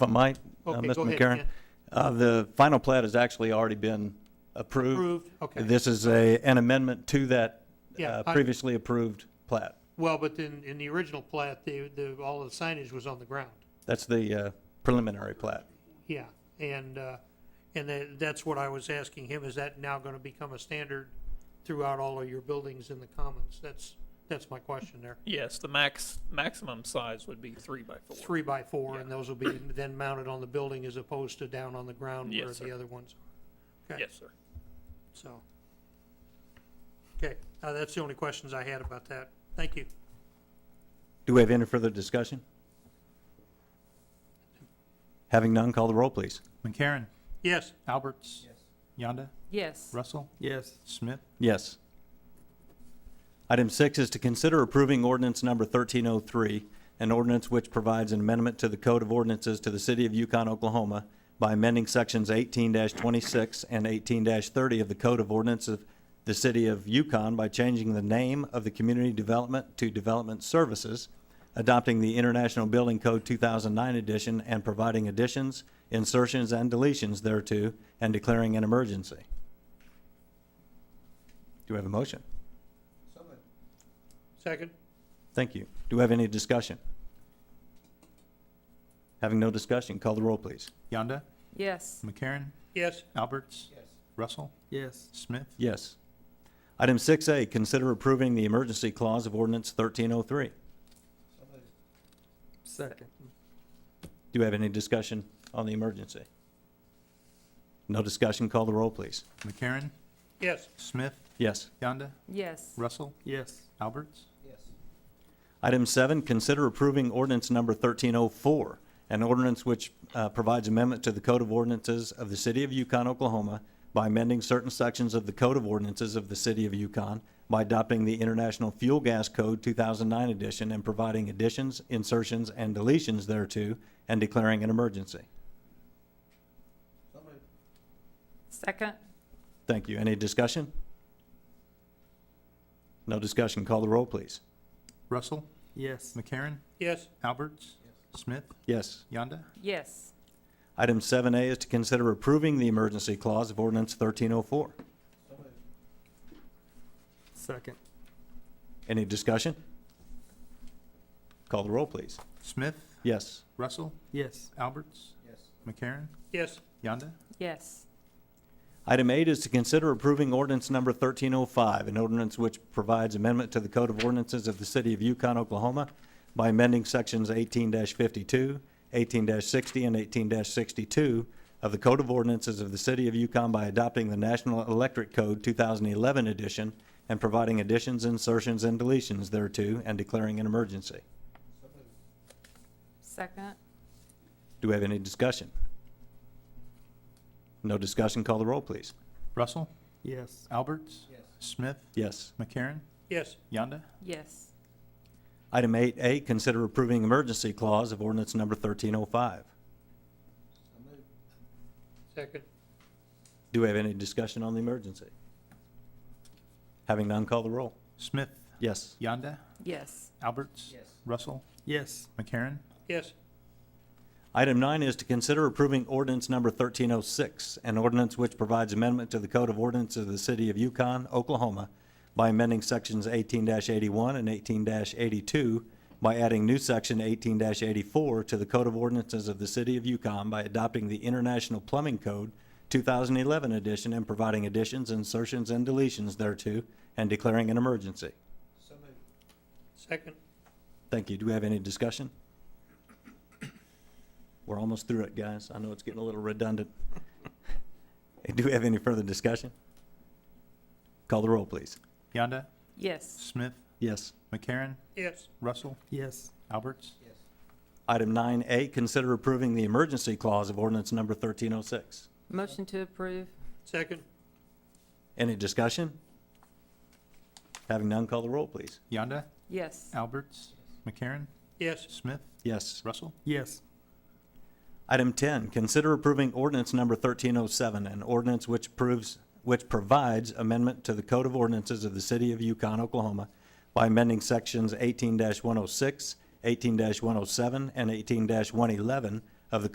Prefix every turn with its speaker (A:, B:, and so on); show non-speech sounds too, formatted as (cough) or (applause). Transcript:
A: If I might, uh,
B: Okay, go
A: Mr.
B: ahead,
A: McCarron,
B: Ken.
A: uh, the final plat has actually already been approved.
B: Approved, okay.
A: This is a, an amendment to that
B: Yeah,
A: uh,
B: I-
A: previously approved plat.
B: Well, but then in the original plat, the, the, all of the signage was on the ground.
A: That's the uh, preliminary plat.
B: Yeah, and, uh, and that, that's what I was asking him, is that now gonna become a standard throughout all of your buildings in the commons? That's, that's my question there.
C: Yes, the max, maximum size would be three by four.
B: Three by four, and
C: Yeah.
B: those will be (coughs) then mounted on the building as opposed to down on the ground where
C: Yes,
B: the
C: sir.
B: other ones are. Okay,
C: Yes, sir.
B: so. Okay, uh, that's the only questions I had about that. Thank you.
A: Do we have any further discussion? Having none, call the roll, please.
D: McCarron.
B: Yes,
D: Alberts. Yonda.
E: Yes.
D: Russell.
F: Yes.
D: Smith.
A: Yes. Item six is to consider approving ordinance number 1303, an ordinance which provides an amendment to the Code of Ordinances to the City of Yukon, Oklahoma by amending sections 18-26 and 18-30 of the Code of Ordinances of the City of Yukon by changing the name of the Community Development to Development Services, adopting the International Building Code 2009 edition and providing additions, insertions, and deletions thereto, and declaring an emergency. Do we have a motion?
B: second?
A: Thank you. Do we have any discussion? Having no discussion, call the roll, please.
D: Yonda.
E: Yes.
D: McCarron.
B: Yes,
D: Alberts. Russell.
F: Yes.
D: Smith.
A: Yes. Item 6A, consider approving the emergency clause of ordinance 1303.
F: Second.
A: Do we have any discussion on the emergency? No discussion, call the roll, please.
D: McCarron.
B: yes,
D: Smith.
A: Yes.
D: Yonda.
E: Yes.
D: Russell.
F: Yes.
D: Alberts.
A: Item seven, consider approving ordinance number 1304, an ordinance which uh, provides amendment to the Code of Ordinances of the City of Yukon, Oklahoma by amending certain sections of the Code of Ordinances of the City of Yukon by adopting the International Fuel Gas Code 2009 edition and providing additions, insertions, and deletions thereto, and declaring an emergency.
E: Second?
A: Thank you. Any discussion? No discussion. Call the roll, please.
D: Russell.
F: Yes.
D: McCarron.
B: yes,
D: Alberts. Smith.
A: Yes.
D: Yonda.
E: Yes.
A: Item seven A is to consider approving the emergency clause of ordinance thirteen oh four.
F: Second.
A: Any discussion? Call the roll, please.
D: Smith.
A: Yes.
D: Russell.
F: Yes.
D: Alberts. McCarron.
B: yes,
D: Yonda.
E: Yes.
A: Item eight is to consider approving ordinance number thirteen oh five, an ordinance which provides amendment to the Code of Ordinances of the City of Yukon, Oklahoma by amending sections eighteen 52 18 sixty, and eighteen sixty-two of the Code of Ordinances of the City of Yukon by adopting the National Electric Code two thousand eleven edition and providing additions, insertions, and deletions thereto, and declaring an emergency.
E: Second?
A: Do we have any discussion? No discussion, call the roll, please.
D: Russell.
F: Yes.
D: Alberts. Smith.
A: Yes.
D: McCarron.
B: yes,
D: Yonda.
E: Yes.
A: Item eight A, consider approving emergency clause of ordinance number thirteen oh five.
B: second,
A: Do we have any discussion on the emergency? Having none, call the roll.
D: Smith.
A: Yes.
D: Yonda.
E: Yes.
D: Alberts. Russell.
F: Yes.
D: McCarron.
B: yes,
A: Item nine is to consider approving ordinance number thirteen oh six, an ordinance which provides amendment to the Code of Ordinances of the City of Yukon, Oklahoma by amending sections eighteen eighty-one and eighteen eighty-two by adding new section eighteen eighty-four to the Code of Ordinances of the City of Yukon by adopting the International Plumbing Code two thousand eleven edition and providing additions, insertions, and deletions thereto, and declaring an emergency.
B: second,
A: Thank you. Do we have any discussion? We're almost through it, guys. I know it's getting a little redundant. Do we have any further discussion? Call the roll, please.
D: Yonda.
E: Yes.
D: Smith.
A: Yes.
D: McCarron.
B: yes,
D: Russell.
F: Yes.
D: Alberts.
A: Item nine A, consider approving the emergency clause of ordinance number thirteen oh six.
E: Motion to approve?
B: second,
A: Any discussion? Having none, call the roll, please.
D: Yonda.
E: Yes.
D: Alberts. McCarron.
B: yes,
D: Smith.
A: Yes.
D: Russell.
F: Yes.
A: Item 10, consider approving ordinance number 1307, an ordinance which proves, which provides amendment to the Code of Ordinances of the City of Yukon, Oklahoma by amending oh sections 18-106, 18-107, and 18-111